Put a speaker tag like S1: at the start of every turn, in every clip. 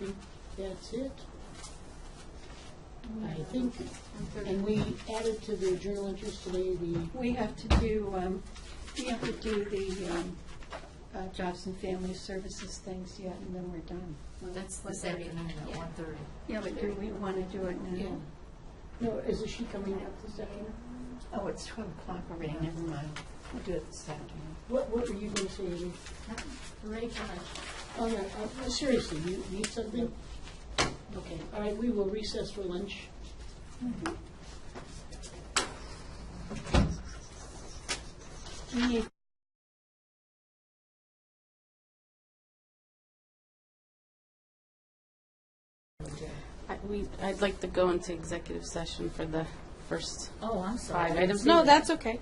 S1: think that's it. I think, and we added to the journal entries today the,
S2: We have to do, um, we have to do the um, uh, jobs and family services things yet, and then we're done.
S3: That's this afternoon at one thirty.
S2: Yeah, but do we want to do it now?
S1: no, is she coming up this afternoon?
S2: Oh, it's 12 o'clock already, never mind. We'll do it this afternoon.
S1: What, what were you going to say, Amy?
S3: Ready for lunch?
S1: Oh, no, uh, seriously, you need something? Okay, all right, we will recess for lunch.
S2: We need
S4: I- We, I'd like to go into executive session for the first
S3: Oh, I'm
S4: five
S3: sorry.
S4: items. No, that's okay.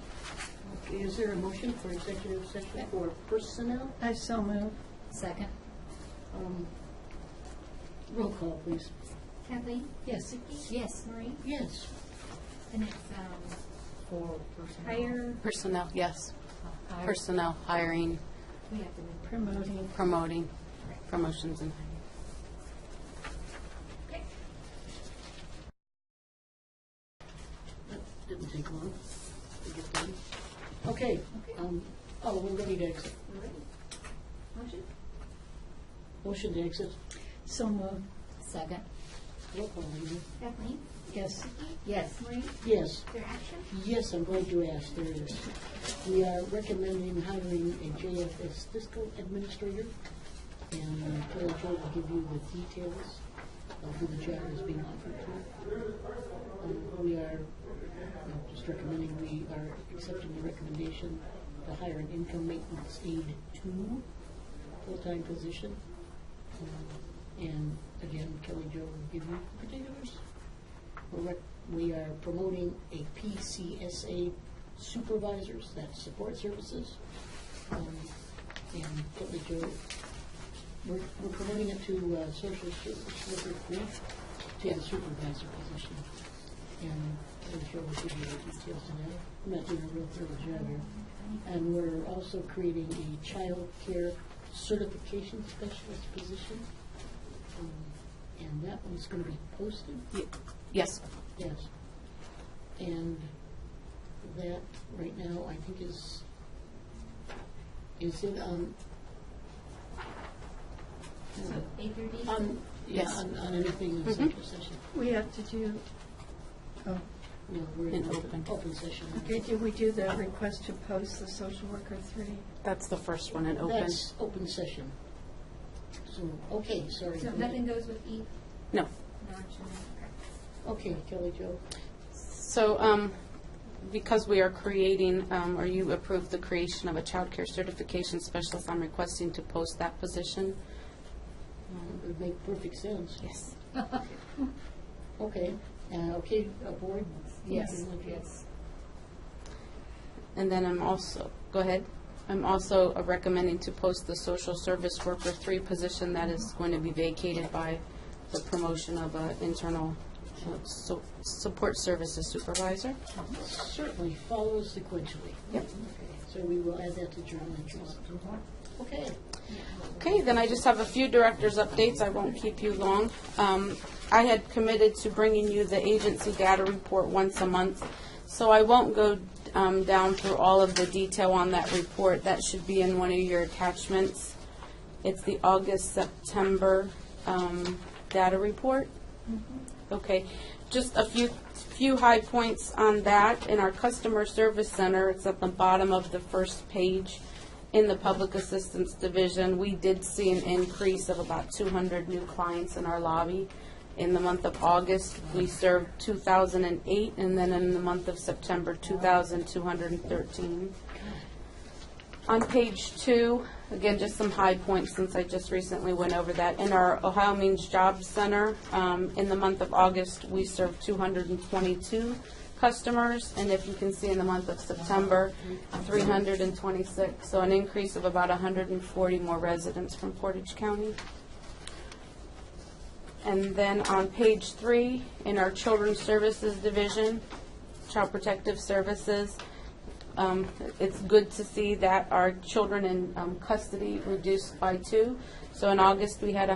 S1: Is there a motion for executive session for personnel?
S2: I so move.
S3: Second.
S1: Um, Roll call, please.
S5: Kathleen?
S2: Yes.
S5: Vicki?
S3: Yes.
S5: Maureen?
S1: Yes.
S5: And it's, um,
S3: For personnel.
S5: higher,
S4: Personnel, yes.
S3: Hire.
S4: Personnel, hiring,
S5: we have to move.
S2: Promoting.
S4: promoting, promotions and hiring.
S5: Okay.
S1: That didn't take long to get done. Okay, um, oh, we're ready to exit.
S5: All right. Motion?
S1: Motion to exit.
S2: So move.
S3: Second.
S1: Roll call, Amy.
S5: Kathleen?
S2: Yes.
S5: Vicki?
S3: Yes.
S5: Maureen?
S1: Yes,
S5: Their action?
S1: yes, I'm glad you asked, there it is. We are recommending hiring a JFS fiscal administrator, and Kelly Joe will give you the details of who the job is being offered to. Um, We are, I'm just recommending, we are accepting the recommendation to hire an income maintenance aide two, full-time position. Um, And again, Kelly Joe will give you the particulars. We're rec- We are promoting a PCSA supervisors, that's support services. Um, And Kelly Jo, we're we're promoting it to uh, social service worker three, to the supervisor position. And Kelly Jo will give you the details on that. I'm not doing a real thorough job here. And we're also creating a child care certification specialist position. Um, And that one's going to be posted.
S4: Ye- Yes,
S1: Yes. And that, right now, I think is, is it um, on,
S5: So A through D?
S3: Um,
S1: on, um, yeah,
S4: Yes.
S1: on, on anything in executive session?
S2: We have to do, oh,
S1: No, we're in
S4: In
S1: open,
S4: open.
S1: open session.
S2: okay, did we do the request to post the social worker three?
S4: that's the first one in open.
S1: That's open session. So, okay, sorry.
S5: So nothing goes with E,
S4: No.
S5: no action.
S1: Okay, Kelly Jo.
S4: So, um, because we are creating, um, or you approved the creation of a child care certification specialist, I'm requesting to post that position.
S1: It would make perfect sense.
S4: Yes.
S1: Okay, uh, okay, uh, board?
S3: Yes.
S1: Okay.
S3: Yes.
S4: And then I'm also, go ahead. I'm also uh, recommending to post the social service worker three position that is going to be vacated by the promotion of an internal uh, so- support services supervisor.
S1: Certainly follows sequentially.
S4: Yep.
S1: Okay, So we will add that to journal entries. Okay.
S4: Okay, then I just have a few directors' updates. I won't keep you long. Um, I had committed to bringing you the agency data report once a month, so I won't go um, down through all of the detail on that report. That should be in one of your attachments. It's the August, September um, data report. Okay, just a few, few high points on that. In our customer service center, it's at the bottom of the first page. In the public assistance division, we did see an increase of about two hundred new clients in our lobby. In the month of August, we served two thousand and eight, and then in the month of September, two thousand two hundred and thirteen. On page two, again, just some high points since I just recently went over that. In our Ohio Means Job Center, um, in the month of August, we served 222 customers, and if you can see in the month of September, 326. So an increase of about 140 more residents from Portage County. And then on page three, in our Children's Services Division, Child Protective Services, um, it's good to see that our children in um, custody reduced by two. So in August, we had